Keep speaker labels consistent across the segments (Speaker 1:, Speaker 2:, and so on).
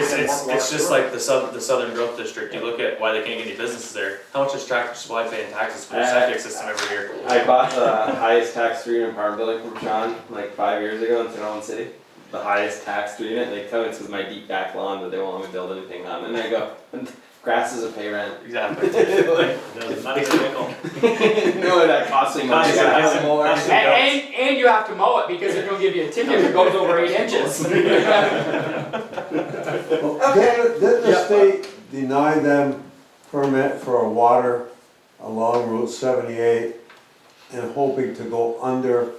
Speaker 1: it's,
Speaker 2: Walmart
Speaker 1: it's just
Speaker 2: store.
Speaker 1: like the south, the southern growth district, you look at why they can't get any businesses there, how much does Tractor Supply pay in taxes for the
Speaker 3: Uh,
Speaker 1: septic system every year?
Speaker 3: I bought the highest tax three unit apartment building from Sean like five years ago in Sonoma City. The highest tax three unit, and they tell me it's because my deep back lawn that they won't let me build anything on. And I go, grass is a pay rent.
Speaker 1: Exactly.
Speaker 3: like,
Speaker 2: Doesn't matter, nickel.
Speaker 3: no, that costs me money.
Speaker 2: Costs you
Speaker 3: Grass.
Speaker 2: nothing.
Speaker 3: more.
Speaker 2: Costs
Speaker 4: And, and, and you have to mow it because they're gonna give you a ticket if it goes over eight inches.
Speaker 5: Well, Didn't didn't the state deny them permit for a water along Route seventy-eight and hoping to go under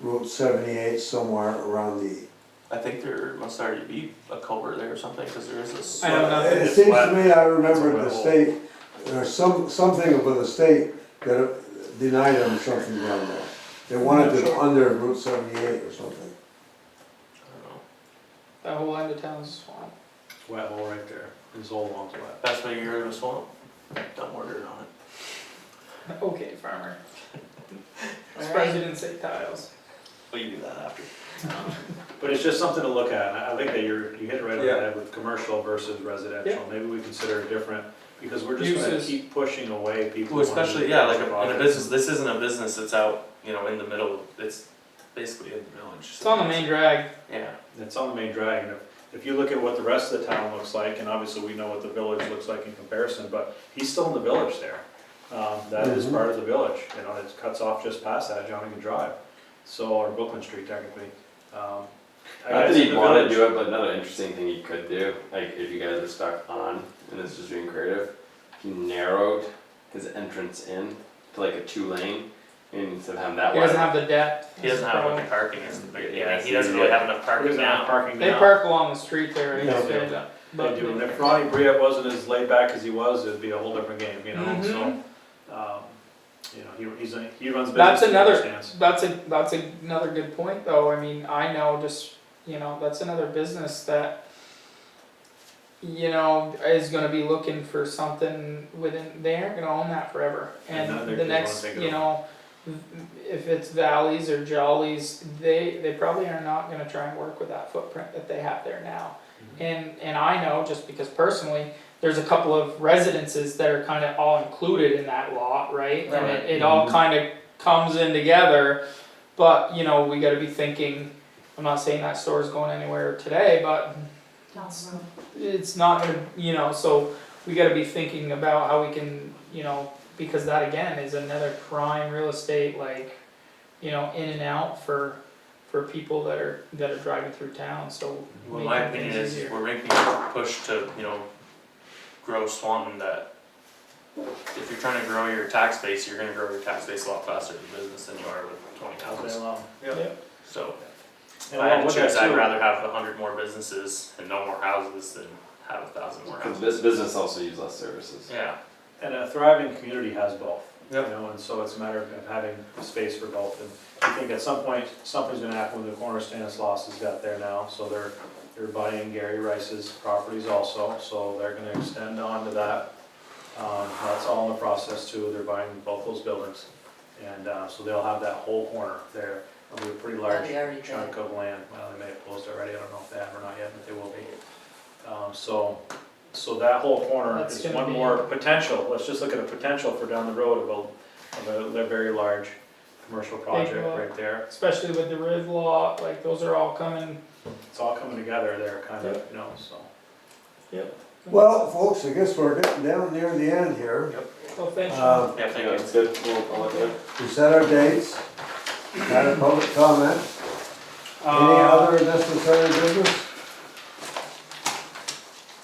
Speaker 5: Route seventy-eight somewhere around the.
Speaker 1: I think there must already be a culvert there or something, cause there is this.
Speaker 4: I don't know.
Speaker 5: It
Speaker 2: It's
Speaker 5: seems
Speaker 2: wet.
Speaker 5: to me, I
Speaker 2: It's a
Speaker 5: remember the
Speaker 2: wet hole.
Speaker 5: state, there's some, something about the state that denied them something down there. They wanted it under Route seventy-eight or something.
Speaker 4: That whole end of town's swamp.
Speaker 2: It's wet hole right there, his whole lawn's wet.
Speaker 1: That's why you're in a swamp, dump order on it.
Speaker 4: Okay, farmer. Surprised you didn't say tiles.
Speaker 1: Well, you do that after.
Speaker 2: But it's just something to look at, and I I think that you're, you hit it right on the
Speaker 3: Yeah.
Speaker 2: head with commercial versus residential, maybe we consider it different, because we're just gonna
Speaker 4: Uses.
Speaker 2: keep pushing away people.
Speaker 1: Well, especially,
Speaker 2: wanting
Speaker 1: yeah, like
Speaker 2: commercial
Speaker 1: a- in a
Speaker 2: properties.
Speaker 1: business, this isn't a business that's out, you know, in the middle, it's basically in the village.
Speaker 4: It's on the main drag.
Speaker 1: Yeah,
Speaker 2: It's on the main drag, and if, if you look at what the rest of the town looks like, and obviously we know what the village looks like in comparison, but he's still in the village there. Um, that is
Speaker 1: Mm-hmm.
Speaker 5: Mhm.
Speaker 2: part of the village, you know, it cuts off just past that, Johnny Drive, so, or Brooklyn Street technically, um. I
Speaker 3: Not
Speaker 2: guess
Speaker 3: that you'd
Speaker 2: the
Speaker 3: want
Speaker 2: village-
Speaker 3: to do it, but another interesting thing you could do, like if you guys are stuck on, and it's just being creative, if you narrowed his entrance in to like a two lane, and instead of having that
Speaker 4: He
Speaker 3: wide.
Speaker 4: doesn't have the depth.
Speaker 1: he doesn't have enough parking, is the big,
Speaker 3: Yeah,
Speaker 1: yeah, he doesn't really have enough parking
Speaker 2: There's not
Speaker 1: now.
Speaker 2: parking
Speaker 4: They
Speaker 2: now.
Speaker 4: park along the street there.
Speaker 5: Yeah.
Speaker 4: it's good,
Speaker 2: They
Speaker 4: but-
Speaker 2: do, and if Ronnie Briette wasn't as laid back as he was, it'd be a whole different game, you know, so,
Speaker 4: Mhm.
Speaker 2: um, you know, he, he's, a- he runs business.
Speaker 4: That's
Speaker 2: he
Speaker 4: another-
Speaker 2: understands.
Speaker 4: That's a, that's a- another good point though, I mean, I know just, you know, that's another business that, you know, is gonna be looking for something within, they aren't gonna own that forever.
Speaker 2: And then
Speaker 4: And
Speaker 2: they're
Speaker 4: the
Speaker 2: gonna
Speaker 4: next,
Speaker 2: take it
Speaker 4: you know, if it's valleys or jollies, they, they probably are not gonna try and work with that footprint that they have there now. And, and I know, just because personally, there's a couple of residences that are kinda all included in that lot, right? And it, it all
Speaker 1: Mm-hmm.
Speaker 4: kinda comes in together. But you know, we got to be thinking. I'm not saying that store's going anywhere today, but it's not gonna, you know. So we got to be thinking about how we can, you know, because that again is another prime real estate, like, you know, in and out for for people that are that are driving through town. So
Speaker 1: Well, my
Speaker 4: making
Speaker 1: opinion
Speaker 4: things
Speaker 1: is,
Speaker 4: easier.
Speaker 1: we're making a push to, you know, grow Swanton that if you're trying to grow your tax base, you're gonna grow your tax base a lot faster than business than you are with twenty
Speaker 2: All day
Speaker 1: houses.
Speaker 2: long.
Speaker 4: Yeah.
Speaker 1: So, if
Speaker 2: And
Speaker 1: I had
Speaker 2: along
Speaker 1: to
Speaker 2: with that
Speaker 1: choose, I'd
Speaker 2: too-
Speaker 1: rather have a hundred more businesses and no more houses than have a thousand more
Speaker 3: Because
Speaker 1: houses.
Speaker 3: this business also use less services.
Speaker 1: Yeah,
Speaker 2: And a thriving community has both, you
Speaker 1: Yep.
Speaker 2: know, and so it's a matter of having space for both. And I think at some point, something's gonna happen with the corner Stanislaus has got there now, so they're, they're buying Gary Rice's properties also, so they're gonna extend on to that. Um, that's all in the process too, they're buying both those buildings. And, uh, so they'll have that whole corner there, it'll be a pretty large
Speaker 6: They already did.
Speaker 2: chunk of land, well, they may have closed already, I don't know if they have or not yet, but they will be. Um, so, so that whole corner
Speaker 4: That's
Speaker 2: is
Speaker 4: gonna
Speaker 2: one
Speaker 4: be-
Speaker 2: more potential, let's just look at a potential for down the road of a, of a very large commercial project
Speaker 4: lot.
Speaker 2: right there.
Speaker 4: especially with the Riv lot, like those are all coming.
Speaker 2: It's all coming together there, kind of, you know, so.
Speaker 5: Well, folks, I guess we're getting down near the end here.
Speaker 4: So thank you.
Speaker 5: Uh,
Speaker 1: yeah,
Speaker 3: Yeah,
Speaker 1: thank you.
Speaker 3: it's good. We'll, I'll look at it.
Speaker 5: We set our dates, had a public comment. Any
Speaker 4: Uh,
Speaker 5: other necessary business?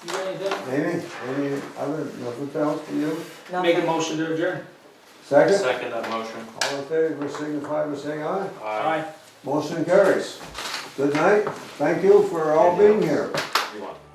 Speaker 4: You got anything?
Speaker 5: Any, any other, nothing else for you?
Speaker 4: Make a
Speaker 6: Nothing.
Speaker 4: motion to adjourn.
Speaker 5: Second,
Speaker 1: Second that motion.
Speaker 5: all in favor, signify by saying aye.
Speaker 4: Aye.
Speaker 5: Motion carries. Good night, thank you for all being here.
Speaker 1: You want-